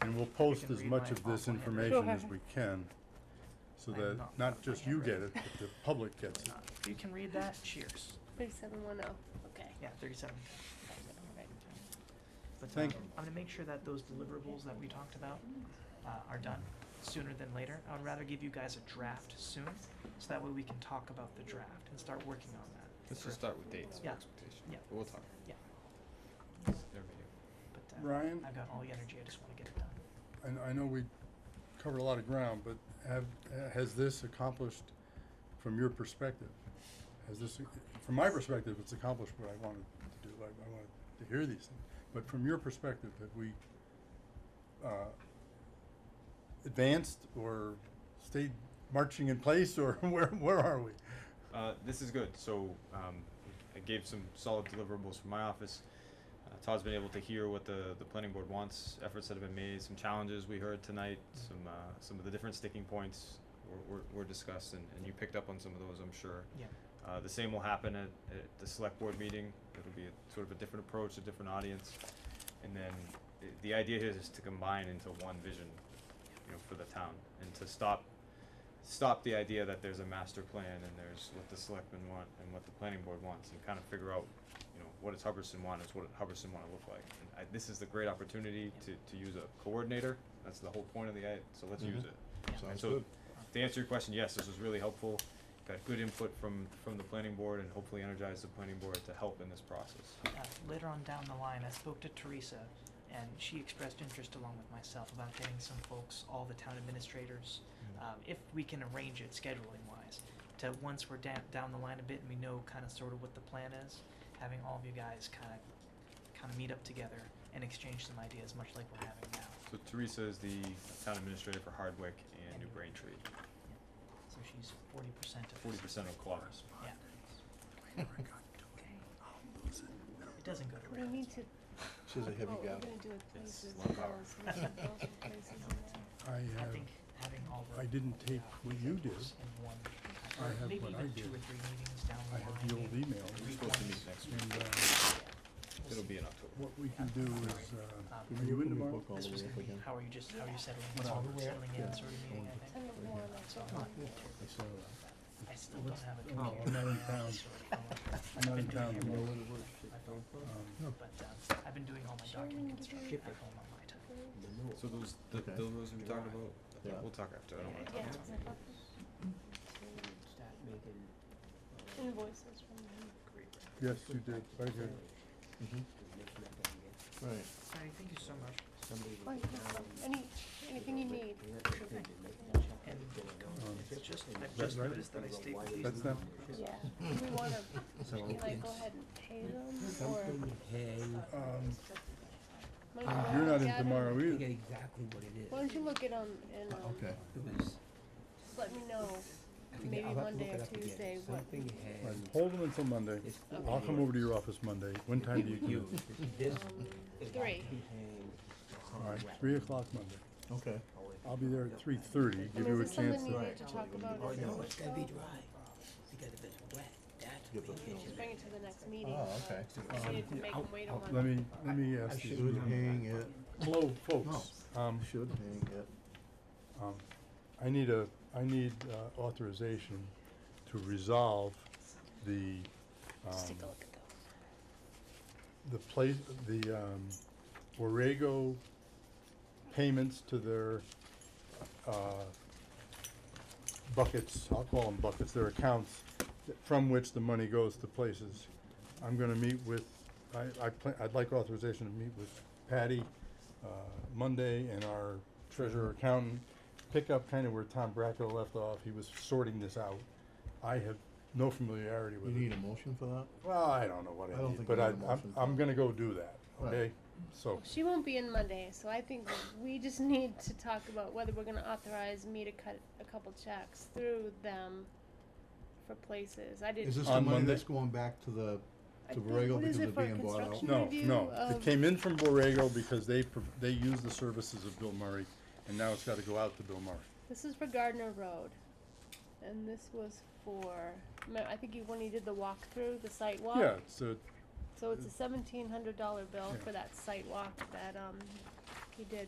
And we'll post can as read much mine of this off on your- information Sure. as we can, so I'm that not not gonna just my you get handwriting. it, but the public gets it. If you can read that, cheers. Thirty-seven one oh, okay. Yeah, thirty-seven. But um, Thank- I'm gonna make sure that those deliverables that we talked about uh, are done sooner than later. I would rather give you guys a draft soon, so that way we can talk about the draft and start working on that. Let's just start with dates for Yeah. expectation. Yeah. But we'll talk. Yeah. There we But, uh, Ryan? I've got all the energy, I just wanna get it done. I, I know we covered a lot of ground, but have, has this accomplished, from your perspective? Has this, from my perspective, it's accomplished what I wanted to do, I, I wanted to hear these things, but from your perspective, have we, uh, advanced or stayed marching in place, or where, where are we? go. Uh, this is good. So um, I gave some solid deliverables from my office. Uh, Todd's been able to hear what the, the planning board wants, efforts that have been made, some challenges we heard tonight, Mm-hmm. some uh, some of the different sticking points were, were, were discussed, and, and you picked up on some of those, I'm sure. Yeah. Uh, the same will happen at, at the select board meeting. It'll be a, sort of a different approach, a different audience. And then i- the idea here is to combine into one vision, you know, for the town and to stop, stop the idea that there's a master plan and there's what the selectmen want and what the planning board wants and kind of figure out, you know, what does Hubbardson want is what Hubbardson wanna look like. And I, this is the great opportunity to, to use a coordinator. That's the whole point of the, i- so let's use Mhm. it. And Sounds so, good. to answer your question, yes, this was really helpful. Got good input from, from the planning board and hopefully energized the planning board to help in this process. uh, later on down the line, I spoke to Teresa, and she expressed interest along with myself about getting some folks, all the town administrators, Ah, um, if we can arrange it scheduling wise, to once we're down, down the line a bit and we know kind of sort of what the plan is, having all of you guys kind of, kind of meet up together and exchange some ideas, much like we're having now. So Teresa is the town administrator for Hardwick and New Braintree, So she's forty percent of forty this. percent of Clark's. Yeah, Um, it doesn't go to We Brad. need to. She's a heavy oh, we're gal. gonna do it It's places long and hour. girls and some girls and places I know, and it's- that. I I have, think having all the. I didn't take what you did. individuals in one, I have maybe what even I two did. or three meetings down the I line. have the old maybe. email, We're supposed to meet next and, week. uh, We'll It'll see. be in October. what we can do is, uh, are you in Can we tomorrow? book all This the was way gonna up be, again? how are you just, how are you settling, What it's all hour is it? settling Yeah. in sort of meeting, I Turn think. the wall on, So turn I'm not, the wall I saw that. I still don't have a Oh, computer. I'm not in so town. I don't know. I'm not Been in doing town it tomorrow. on my phone, Um, But, um, I've been doing all my Sure, we document need to do construction it. at home on my time. The middle. So those, the, Okay. those we talked about, I Yeah. think we'll talk after, I don't wanna Yeah, talk Yeah, now. it's like, invoices from him. Yes, you did, very good. Mhm. Right. Sorry, thank you so much. Like, um, Any, anything you need. And Um, it's just, I've that just right? noticed that I stayed with these. That's them? Yeah, we wanna, should we like go ahead and pay them or? Um, Why don't you Ah, You're look not in at it? tomorrow I either. forget exactly what it is. Why don't you look at them and, um, Okay. It was, just let me know, I forget, maybe I'll have to Monday look it or up again. Tuesday, what, Something Right, has, Hold them until Monday. it's I'll come over to your office Monday. When time do you come huge. in? This um, is three. All right, three o'clock Monday. Okay. I'll be there at three thirty, I give mean, you a is this chance something you to. need to talk about? Oh, as no, well? it's gonna be dry, because if it's wet, that's Get when those you notes. Just bring it to the next meeting. Oh, but okay. we need to make them wait a month. um, Let me, let me ask Should you. hang it, Hello, folks. Um, should hang it. um, I need a, I need uh, authorization to resolve the, Just take a um, look at those. the place, the, um, Borrego payments to their, uh, buckets, I'll call them buckets, their accounts, th- from which the money goes to places. I'm gonna meet with, I, I plan, I'd like authorization to meet with Patty, uh, Monday and our treasurer accountant. Pick up kinda where Tom Bracco left off, he was sorting this out. I have no familiarity You with it. need a motion for that? Well, I don't know what I I don't need, think but we I, need a I'm, motion for I'm that. gonna go do that, Right. okay? So, She won't be in Monday, so I think that we just need to talk about whether we're gonna authorize me to cut a couple checks through them for places. I didn't. Is this the On money Monday? that's going back to the, I to think- Borrego what is because it they're for a being bought out? construction no, review um, no, it of- came in from Borrego because they, pro- they used the services of Bill Murray, and now it's gotta go out to Bill Murray. This is for Gardner Road, and this was for, me- I think you, when you did the walkthrough, the site walk. Yeah, it's a, So it's a seventeen hundred dollar bill Yeah. for that site walk that, um, he did.